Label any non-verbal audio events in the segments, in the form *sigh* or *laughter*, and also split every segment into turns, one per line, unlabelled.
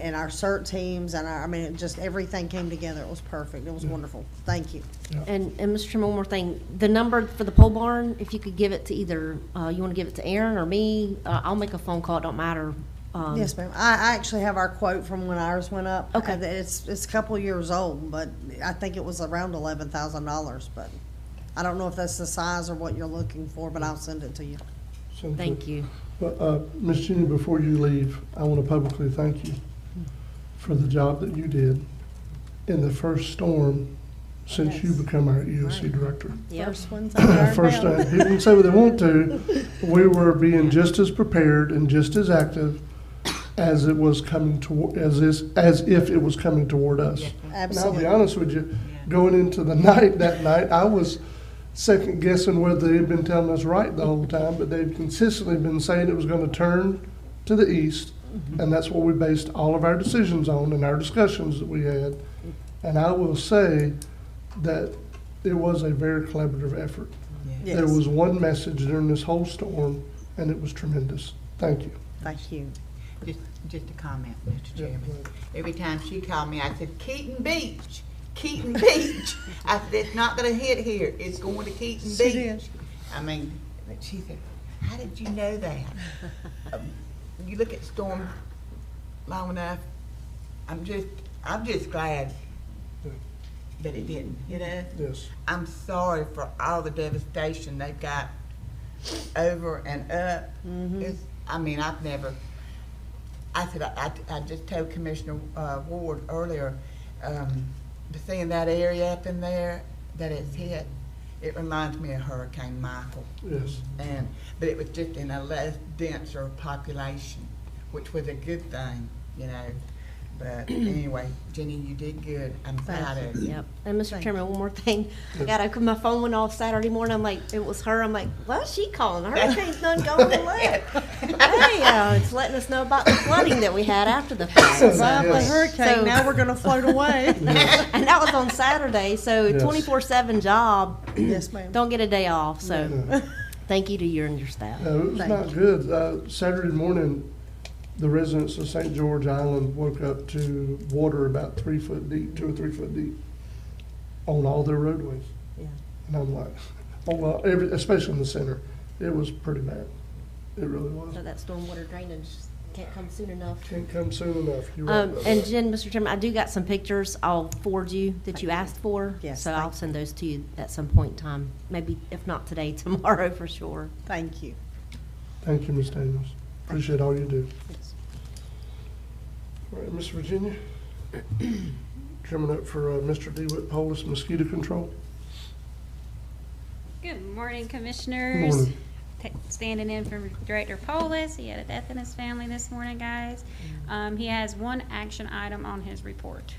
and our CERT teams and our, I mean, it just everything came together. It was perfect. It was wonderful. Thank you.
And, and Mr. Chairman, one more thing, the number for the pole barn, if you could give it to either, uh, you want to give it to Aaron or me, uh, I'll make a phone call, it don't matter. Um,
Yes, ma'am. I, I actually have our quote from when ours went up.
Okay.
And It's, it's a couple years old, but I think it was around eleven thousand dollars, but I don't know if that's the size or what you're looking for, but I'll send it to you.
So,
Thank you.
Well, uh, Ms. Jenny, before you leave, I want to publicly thank you for the job that you did in the first storm since you
Yes.
become our EOC director.
Yep.
First one's out there
*laughs* First,
now.
uh, people can say what they want to, we were being just as prepared and just as active as it was coming toward, as is, as if it was coming toward us. And I'll
Absolutely.
be honest with you, going into the *laughs* night that night, I was second guessing whether they'd been telling us right the whole time, but they've consistently been saying it was going to turn to the east,
Mm-hmm.
and that's what we based all of our decisions on and our discussions that we had. And I will say that it was a very collaborative effort. There
Yes.
was one message during this whole storm, and it was tremendous. Thank you.
Thank you.
Just, just a comment, Mr. Chairman. Every time she called me, I said, Keaton Beach, Keaton Beach. *laughs* I said, it's not gonna hit here, it's going to Keaton
She did.
Beach. I mean, but she said, how did you
*laughs*
know that? Um, You look at storm long enough, I'm just, I'm just glad that it didn't, you know?
Yes.
I'm sorry for all the devastation they got over and up. It's, I mean, I've never, I said, I, I- I just told Commissioner uh, Ward earlier, um, seeing that area up in there that it's hit, it reminds me of Hurricane Michael.
Yes.
And, but it was just in a less denser population, which was a good thing, you know? But anyway, Jenny, you did good. I'm proud of you.
Yep. And Mr.
Thank
Chairman, one more thing. I got, I- my phone went off Saturday morning, I'm like, it was her, I'm like, well, she calling, the
*laughs*
hurricane's done going away. Hey, uh, it's letting us know about the flooding that we had after the fact. so-
The
Yes.
hurricane,
So-
now we're gonna float away.
*laughs* And that was on Saturday, so
Yes.
twenty-four seven job,
Yes, ma'am.
don't get a day off, so
Yeah.
*laughs* thank you to you and your staff.
No, it was
Thank
not good. Uh, Saturday morning, the residents of St. George Island woke up to water about three foot deep, two or three foot deep, on all their roadways.
Yeah.
And I'm like, oh, well, every, especially in the center, it was pretty bad. It really was.
So that stormwater drainage can't come soon enough.
Can't come soon enough. You're right
Um,
about
and
that.
Jen, Mr. Chairman, I do got some pictures I'll forward you that you asked for.
Yes,
So I'll
thank
send those to you at some point in time, maybe if not today, *laughs* tomorrow for sure.
Thank you.
Thank you, Ms. Daniels. Appreciate all you do.
Yes.
All right, Ms. Virginia, *clears throat* coming up for uh, Mr. DeWitt Polis mosquito control.
Good morning, Commissioners.
Morning.
Ta- Standing in for Director Polis. He had a death in his family this morning, guys.
Mm.
Um, he has one action item on his report.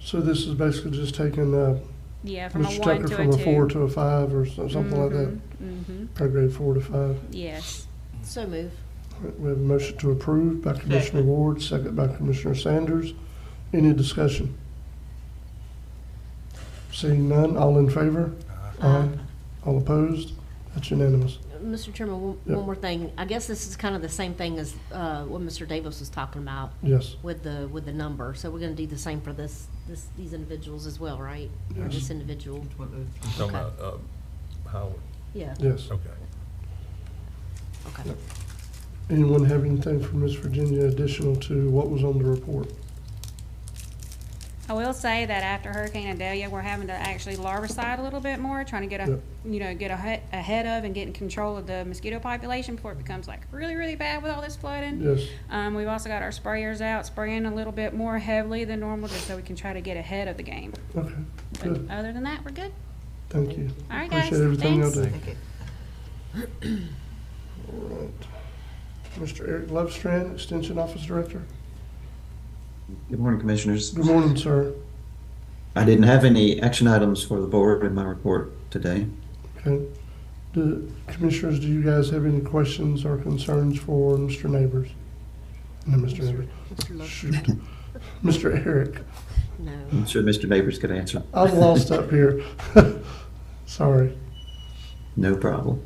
So this is basically just taking, uh,
Yeah, from a
Mr.
one
Tucker
to a two.
from a four to a five or so- something like that,
Mm-hmm,
grade four to five.
yes.
So move.
We have a motion to approve by Commissioner Ward, second by Commissioner Sanders. Any discussion? Seeing none, all in favor? Aye. All opposed? That's unanimous.
Mr. Chairman, one,
Yeah.
one more thing. I guess this is kind of the same thing as, uh, what Mr. Davis was talking about
Yes,
with the, with the number. So we're gonna do the same for this, this, these individuals as well, right? Or
Yes.
this individual,
Talking
Okay.
about, um, Howard,
yeah,
yes.
okay.
okay.
Anyone have anything from Ms. Virginia additional to what was on the report?
I will say that after Hurricane Idalia, we're having to actually larvicide a little bit more, trying to get a, you know, get ahe- ahead of and get in control of the mosquito population before it becomes like really, really bad with all this flooding.
Yes,
Um, we've also got our sprayers out, spraying a little bit more heavily than normal, just so we can try to get ahead of the game.
okay,
But
good,
other than that, we're good.
thank you.
All right, guys.
Appreciate everything y'all
Thanks.
do.
Okay.
All right. Mr. Eric Lovestrand, Extension Office Director.
Good morning, Commissioners.
Good morning, sir.
I didn't have any action items for the board in my report
*laughs*
today.
Okay. Do, commissioners, do you guys have any questions or concerns for Mr. Neighbors? No, Mr. Neighbors.
Mr. Love,
Shoot. Mr. Eric,
no.
I'm sure Mr. Neighbors could answer.
I'm lost up here. *laughs* Sorry.
*laughs* No problem.